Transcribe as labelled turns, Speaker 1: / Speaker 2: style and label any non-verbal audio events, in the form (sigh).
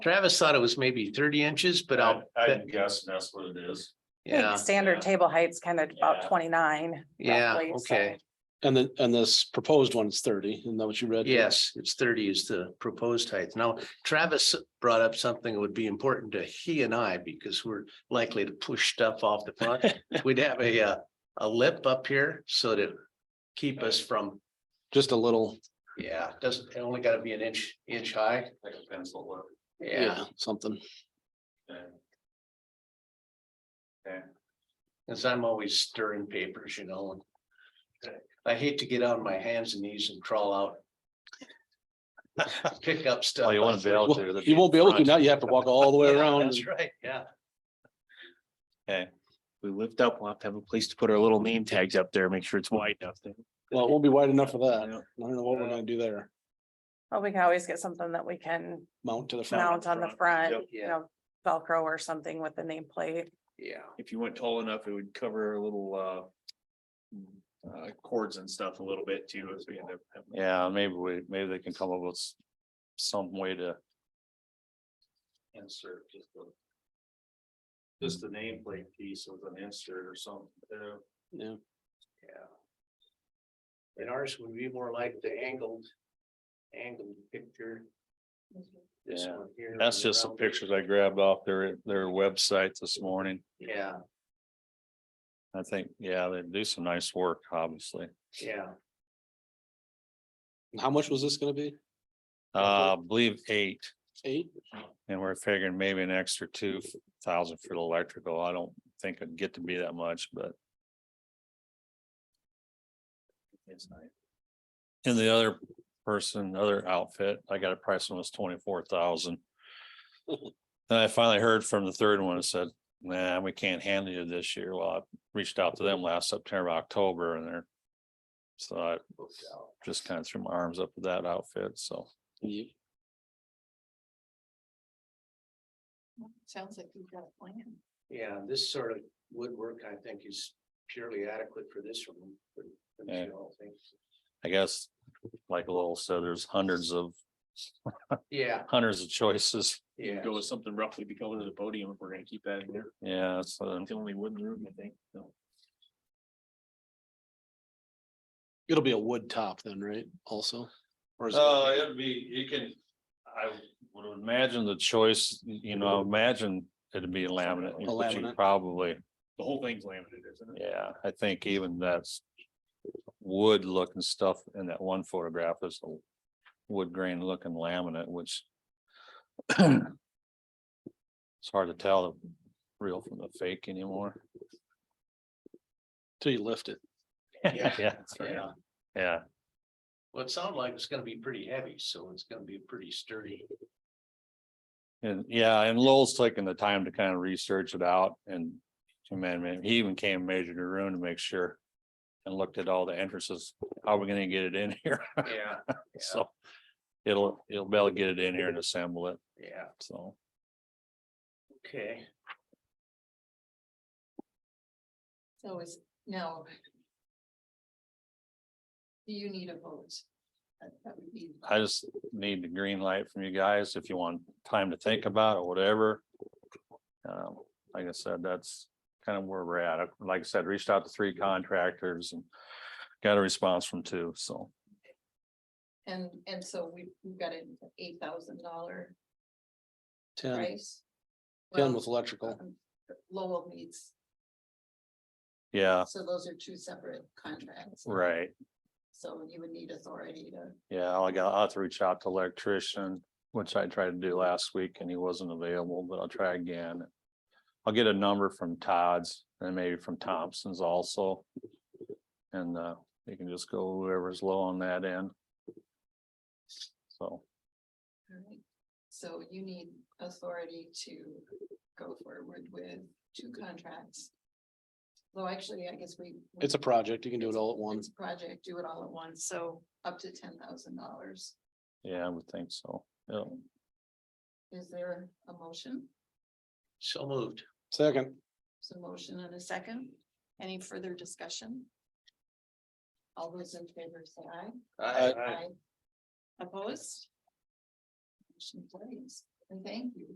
Speaker 1: Travis thought it was maybe thirty inches, but I'll,
Speaker 2: I'm guessing that's what it is.
Speaker 3: I think
Speaker 1: yeah,
Speaker 3: Standard table height's kind of about
Speaker 2: Yeah.
Speaker 3: twenty-nine.
Speaker 1: yeah,
Speaker 3: roughly, so-
Speaker 1: okay.
Speaker 4: And then, and this proposed one is thirty, isn't that what you read?
Speaker 1: Yes, it's thirty is the proposed height. Now Travis brought up something that would be important to he and I because we're likely to push stuff off the front.
Speaker 2: (laughs)
Speaker 1: We'd have a, uh, a lip up here so to keep us from,
Speaker 4: Just a little,
Speaker 1: yeah, doesn't, it only gotta be an inch, inch high.
Speaker 2: Like a pencil whip.
Speaker 1: Yeah,
Speaker 4: yeah, something.
Speaker 2: and-
Speaker 1: cause I'm always stirring papers, you know, and I hate to get on my hands and knees and crawl
Speaker 2: (laughs)
Speaker 1: out. Pick up stuff.
Speaker 2: Well, you wanna be out there, that'd
Speaker 4: You
Speaker 2: be
Speaker 4: won't be able to
Speaker 2: front.
Speaker 4: now, you have to walk all the way
Speaker 5: (laughs)
Speaker 1: Yeah,
Speaker 4: around.
Speaker 1: That's right, yeah.
Speaker 5: we lift up, we'll have to have a place to put our little name tags up there, make sure it's wide enough. then.
Speaker 4: Well, it won't be wide enough for that. I
Speaker 5: Yeah.
Speaker 4: don't know what we're gonna do there.
Speaker 3: Well, we can always get something that we can
Speaker 4: Mount to the front.
Speaker 3: mount on the
Speaker 2: front.
Speaker 3: front,
Speaker 1: Yep.
Speaker 3: you know, Velcro or something with the nameplate.
Speaker 1: Yeah.
Speaker 5: If you went tall enough, it would cover a little uh. Uh, cords and stuff a little bit too, as we end up. having-
Speaker 2: Yeah, maybe we, maybe they can come up with s- some way to. Insert just the. Just the nameplate piece with an insert or something.
Speaker 4: Yeah,
Speaker 1: Yeah. And ours would be more like the angled, angled picture. This
Speaker 2: Yeah.
Speaker 1: one here.
Speaker 2: That's
Speaker 1: with
Speaker 2: just some
Speaker 1: round-
Speaker 2: pictures I grabbed off their, their website this morning.
Speaker 1: Yeah,
Speaker 2: I think, yeah, they do some nice work, obviously.
Speaker 1: yeah.
Speaker 4: And how much was this gonna be?
Speaker 2: Uh, I believe eight,
Speaker 4: Eight?
Speaker 2: and we're figuring maybe an extra two thousand for the electrical. I don't think it'd get to be that much, but. It's nice. And the other person, other outfit, I got a price on was twenty-four (laughs) thousand. And I finally heard from the third one and said, nah, we can't handle you this year. Well, I reached out to them last September, October, and they're. So I
Speaker 1: booked out.
Speaker 2: just kind of threw my arms up with that outfit, so.
Speaker 4: Yeah.
Speaker 6: Sounds like we've got a plan.
Speaker 1: Yeah, this sort of woodwork, I think, is purely adequate for this room. for- for the
Speaker 2: Yeah.
Speaker 1: show, I think.
Speaker 2: I guess, like Lowell said, there's hundreds of,
Speaker 1: Yeah,
Speaker 2: hundreds of choices.
Speaker 1: yeah.
Speaker 5: Go with something roughly be going to the podium if we're gonna keep that in there.
Speaker 2: Yeah, so,
Speaker 5: It's the only wooden room, I think, so.
Speaker 4: It'll be a wood top then, right? Also? Or is it-
Speaker 2: uh, it'd be, you can, I would imagine the choice, you know, imagine it'd be laminate.
Speaker 4: A
Speaker 2: which you
Speaker 4: laminate.
Speaker 2: Probably,
Speaker 5: The whole thing's laminated, isn't
Speaker 2: (laughs)
Speaker 5: it?
Speaker 2: yeah, I think even that's wood looking stuff in that one photograph is a wood grain looking laminate, which it's hard to tell the real from the fake anymore. (laughs)
Speaker 4: Till you lift it.
Speaker 1: Yeah.
Speaker 2: that's right.
Speaker 1: Yeah,
Speaker 2: Yeah.
Speaker 1: well, it sounded like it's gonna be pretty heavy, so it's gonna be pretty sturdy.
Speaker 2: And yeah, and Lowell's taking the time to kind of research it out and to man, man, he even came and measured the room to make sure. And looked at all the entrances, how are we gonna get it in (laughs) here?
Speaker 1: Yeah,
Speaker 2: So it'll, it'll be able to get it in here and assemble it,
Speaker 1: yeah,
Speaker 2: so.
Speaker 1: okay.
Speaker 6: So is now. Do you need a vote? That that would be,
Speaker 2: I just need the green light from you guys if you want time to think about it, or whatever. Um, like I said, that's kind of where we're at. I- Like I said, reached out to three contractors and got a response from two, so.
Speaker 6: and, and so we, we've got an eight thousand dollar
Speaker 4: Ten,
Speaker 6: price.
Speaker 4: ten
Speaker 6: Well,
Speaker 4: with electrical.
Speaker 6: um, Lowell needs,
Speaker 2: Yeah,
Speaker 6: so those are two separate contracts.
Speaker 2: right.
Speaker 6: So you would need authority to,
Speaker 2: Yeah, I got, I'll have to reach out to electrician, which I tried to do last week and he wasn't available, but I'll try again. I'll get a number from Todd's and maybe from Thompson's also. And uh, you can just go whoever's low on that end. So,
Speaker 6: alright. so you need authority to go forward with two contracts. Though actually, I guess we. we-
Speaker 4: It's a project. You can do it all at
Speaker 6: It's
Speaker 4: once.
Speaker 6: a project, do it all at once, so up to ten thousand dollars.
Speaker 2: yeah, I would think so. Yeah,
Speaker 6: Is there a motion?
Speaker 1: So moved.
Speaker 4: Second,
Speaker 6: There's a motion and a second. Any further discussion? All those in favor say aye.
Speaker 4: Aye.
Speaker 6: Opposed? Motion carries. And thank you